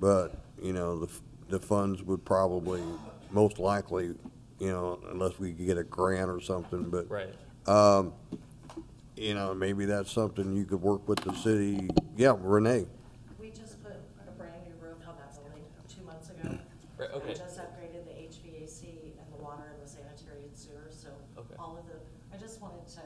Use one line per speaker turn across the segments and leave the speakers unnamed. But, you know, the, f- the funds would probably, most likely, you know, unless we could get a grant or something, but. um,
Right.
You know, maybe that's something you could work with the city. Yeah, Renee,
We just put a brand-new roof on that building two months ago.
Right, okay.
We just upgraded the HVAC and the water and the sanitary and sewer, so
Okay.
all of the, I just wanted to,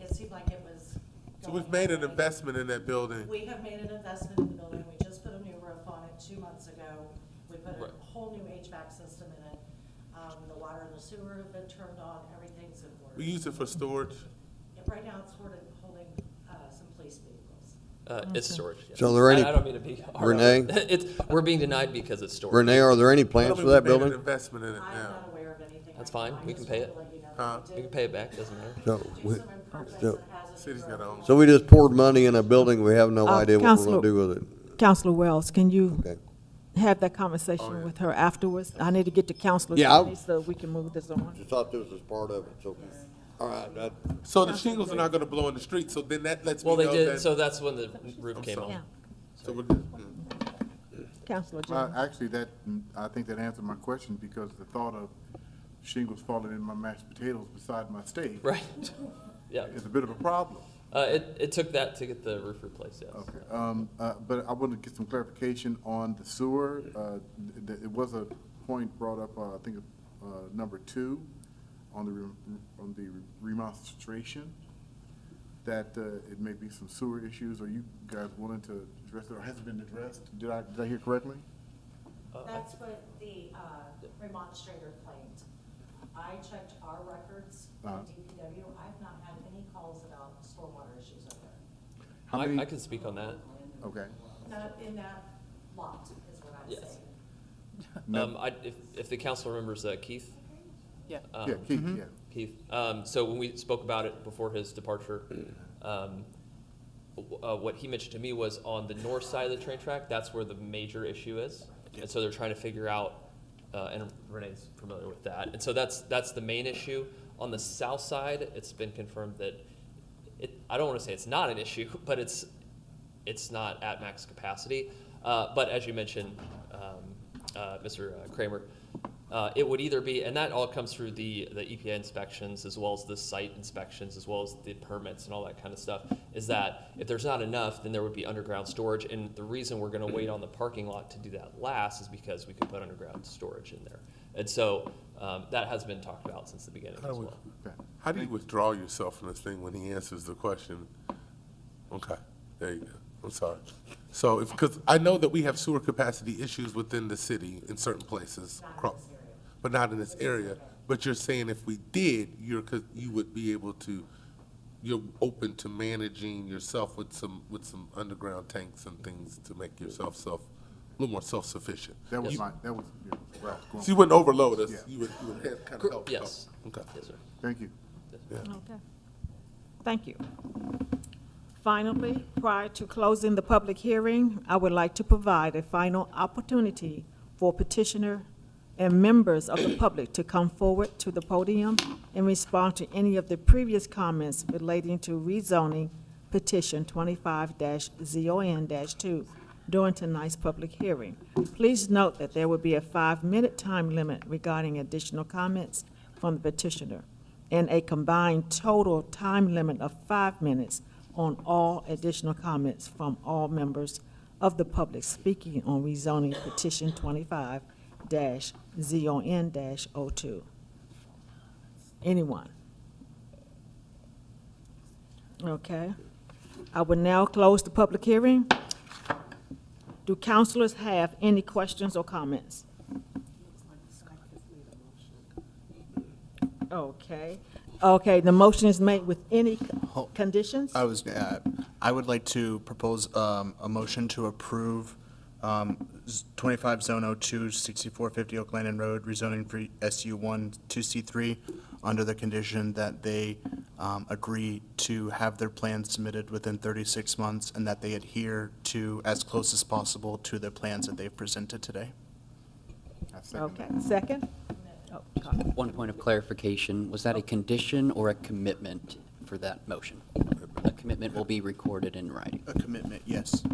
it seemed like it was.
So
going
we've made an
away.
investment in that building.
We have made an investment in the building, we just put a new roof on it two months ago. We put
Right.
a whole new HVAC system in it. Um, the water and the sewer have been turned on, everything's in
We
order.
use it for storage.
And Right now, it's sort of holding, uh, some police vehicles.
Uh, it's storage. yes.
So there any-
I, I don't mean to be hard on
Renee?
it. it's we're being denied because it's storage.
Renee, are there any
I
plans
don't
for
think
that
we made an
building?
Investment in it
I'm
now.
not aware of anything.
That's
right now.
fine.
I
We can
just
pay
wanted
it.
to let you know
Huh?
that
We can pay it back. Doesn't matter.
So,
Do
we,
some improvements
so-
that has a
City's got
road.
own-
so we just poured money in a building, we have no
Uh,
idea what we're gonna
Counselor-
do with it.
Counselor Wells, can you
Okay.
have that
Oh, yeah.
conversation with her afterwards? I need to get to Counselor
Yeah, I'll-
Tony so we can move this on.
Just thought this was part of it, so, all right, that,
So the shingles are not gonna blow in the street, so then that lets me
Well, they
know
did.
that.
So that's when the roof
I'm
came
sorry.
on.
Yeah,
so we're good. Mm.
Counselor
Well,
Jones.
actually, that, I think that answered my question, because the thought of shingles falling in my mashed potatoes beside my steak
Right. yeah.
is a bit of a problem.
Uh, it, it took that to get the roof replaced. Yes.
Okay, um, uh, but I want to get some clarification on the sewer. Uh, th- th- it was a point brought up, uh, I think, uh, number two, on the, re- on the remonstration, that, uh, it may be some sewer issues. Are you guys willing to address it, or has it been addressed? Did I, did I hear correctly?
Uh,
That's what the uh, remonstrator claimed. I checked our records
Uh-huh.
on DPW. I've not had any calls about stormwater issues over there.
How
I,
many?
I can speak on that.
Okay.
Not in that lot is what I'm
Yes.
saying.
No.
Um, I, if, if the council remembers uh, Keith.
Yeah.
Um,
Yeah, Keith, yeah.
Keith. Um, so when we spoke about it before his departure, um, w- uh, what he mentioned to me was on the north side of the train track, that's where the major issue is. And so they're trying to figure out, uh, and Renee's familiar with that. And so that's, that's the main issue. On the south side, it's been confirmed that it, I don't want to say it's not an issue, but it's, it's not at max capacity. Uh, but as you mentioned, um, uh, Mr. Kramer, uh, it would either be, and that all comes through the, the EPA inspections as well as the site inspections, as well as the permits and all that kind of stuff, is that if there's not enough, then there would be underground storage. And the reason we're going to wait on the parking lot to do that last is because we could put underground storage in there. And so um, that has been talked about since the beginning as well.
Okay.
How do you withdraw yourself from this thing when he answers the question? Okay, there you go. I'm sorry. So if, because I know that we have sewer capacity issues within the city in certain places. acro- But not in this area. But you're saying if we did, you're, co- you would be able to, you're open to managing yourself with some, with some underground tanks and things to make yourself self, a little more self-sufficient.
That was
You-
my, that was, yeah, where I was going.
So you wouldn't overload us.
Yeah.
You would, you would have kind of
Cor-
help.
Yes.
Okay.
Yes, sir.
Thank you.
Thank you. Finally, prior to closing the public hearing, I would like to provide a final opportunity for petitioner and members of the public to come forward to the podium and respond to any of the previous comments relating to rezoning petition twenty-five ZON two during tonight's public hearing. Please note that there will be a five-minute time limit regarding additional comments from the petitioner and a combined total time limit of five minutes on all additional comments from all members of the public speaking on rezoning petition twenty-five dash ZON dash O two. Anyone? Okay. I will now close the public hearing. Do counselors have any questions or comments? Okay, okay, the motion is made with any c-
Ho-
conditions?
I was, uh, I would like to propose um, a motion to approve um, z- 25 Zone 02, 6450 Oak Landing Road, rezoning for SU1 to C3, under the condition that they um, agree to have their plans submitted within 36 months, and that they adhere to, as close as possible, to the plans that they've presented today.
I second
Okay,
that.
second? Oh, God.
One point of clarification, was that a condition or a commitment for that motion? A commitment will be recorded in writing.
A commitment, yes.